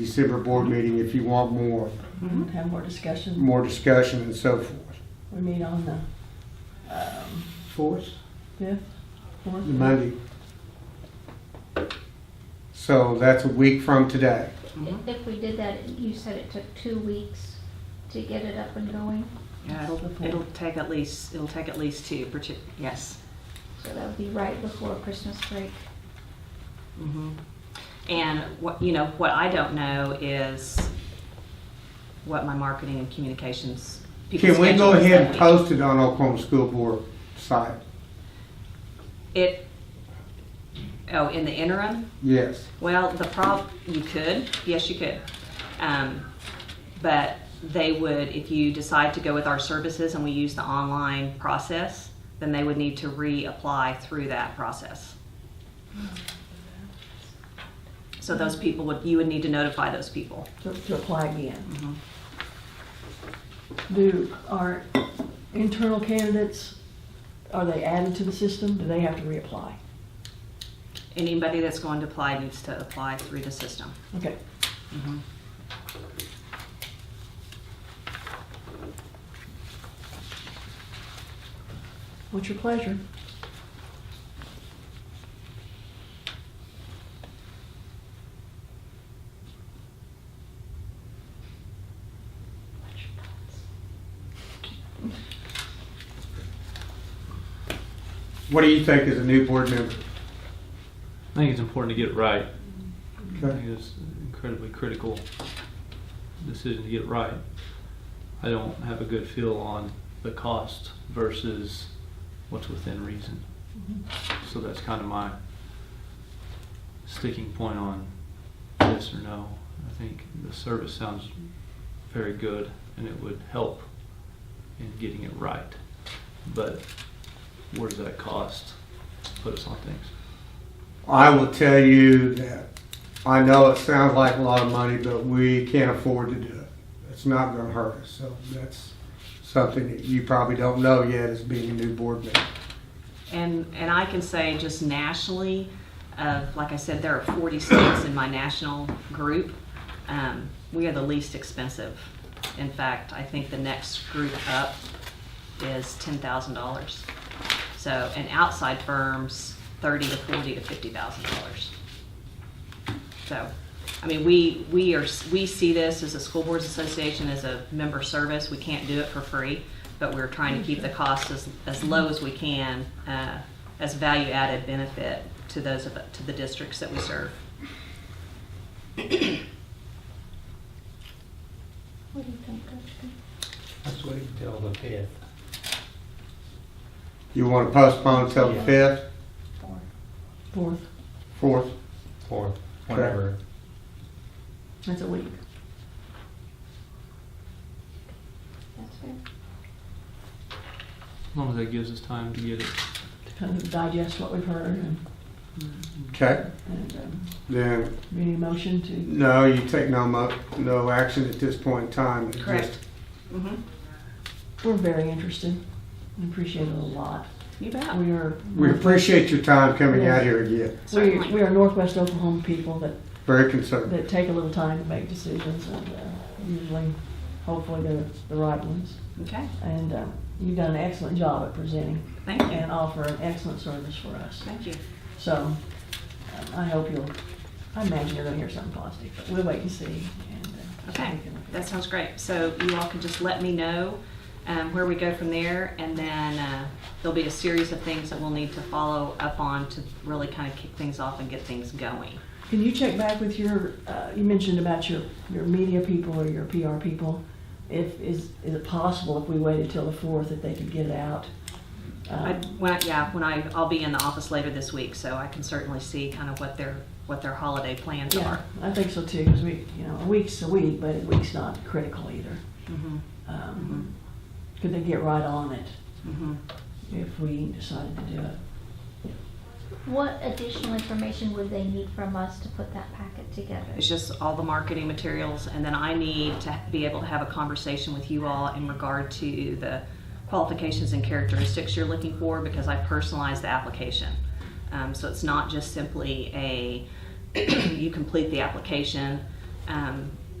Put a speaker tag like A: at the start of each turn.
A: December board meeting if you want more,
B: Mm-hmm.
C: Have more discussion.
A: more discussion and so forth.
C: We meet on the um,
A: Fourth?
C: fifth, fourth.
A: Monday. So that's a week from today.
D: If if we did that, you said it took two weeks to get it up and going,
B: Yeah, it'll, it'll take at least, it'll take at least two, partic- yes.
D: so that would be right before Christmas break.
B: Mhm. And what, you know, what I don't know is what my marketing and communications. people's
A: Can we go
B: schedule is that
A: ahead and
B: week.
A: post it on Oklahoma School Board site?
B: It, oh, in the interim?
A: Yes.
B: Well, the prob, you could, yes, you could. Um, But they would, if you decide to go with our services and we use the online process, then they would need to reapply through that process. So those people would, you would need to notify those people.
C: to, to apply again. Do our internal candidates, are they added to the system? Do they have to reapply?
B: Anybody that's going to apply needs to apply through the system.
C: Okay, what's your pleasure?
A: What do you think as a new board member?
E: I think it's important to get it right. I
A: Okay.
E: think it's an incredibly critical decision to get it right. I don't have a good feel on the cost versus what's within reason. So that's kind of my sticking point on yes or no. I think the service sounds very good and it would help in getting it right. But where does that cost put us on things?
A: I will tell you that I know it sounds like a lot of money, but we can't afford to do it. It's not gonna hurt us, so that's something that you probably don't know yet as being a new board member.
B: And, and I can say just nationally, uh, like I said, there are 40 states in my national group. Um, we are the least expensive. In fact, I think the next group up is $10,000. So, and outside firms, 30 to 40 to $50,000. So, I mean, we, we are, we see this as a school boards association, as a member service, we can't do it for free, but we're trying to keep the costs as, as low as we can, uh, as value added benefit to those of, to the districts that we serve.
D: What do you think, Dustin?
F: Let's wait until the fifth.
A: You wanna postpone until the
F: Yeah.
A: fifth,
D: Four.
C: Fourth,
A: fourth?
F: Fourth. Whenever.
C: that's a week.
D: That's fair.
E: As long as that gives us time to get it
C: to Kind of digest what we've heard and,
A: Okay,
C: and, um,
A: then
C: any motion to,
A: No, you take no mo, no action at this point in time. It just-
B: Correct. Mm-hmm.
C: we're very interested. We appreciate it a lot.
B: You bet.
C: We are.
A: We appreciate your time coming out here again.
C: We,
B: Certainly.
C: we are Northwest Oklahoma people that
A: Very concerned.
C: that take a little time to make decisions, and uh, usually, hopefully, they're the right ones.
B: Okay,
C: And uh, you've done an excellent job at presenting
B: thank you.
C: and offer an excellent service for us.
B: Thank you.
C: So um, I hope you'll, I imagine you're going to hear something positive, but we'll wait and see. and, uh, see what
B: Okay,
C: we can look at.
B: that sounds great. So you all can just let me know um, where we go from there, and then uh, there'll be a series of things that we'll need to follow up on to really kind of kick things off and get things going.
C: Can you check back with your, uh, you mentioned about your, your media people or your PR people? If, is, is it possible if we waited till the 4th that they could get it out?
B: I,
C: Um,
B: when I, yeah, when I, I'll be in the office later this week, so I can certainly see kind of what their, what their holiday plans
C: Yeah,
B: are.
C: I think so too, because we, you know, a week's a week, but a week's not critical either.
B: Mhm,
C: Um, Could they get right on it
B: mhm.
C: if we decided to do it?
D: What additional information would they need from us to put that packet together?
B: It's just all the marketing materials, and then I need to be able to have a conversation with you all in regard to the qualifications and characteristics you're looking for, because I personalize the application. Um, so it's not just simply a, you complete the application, Um,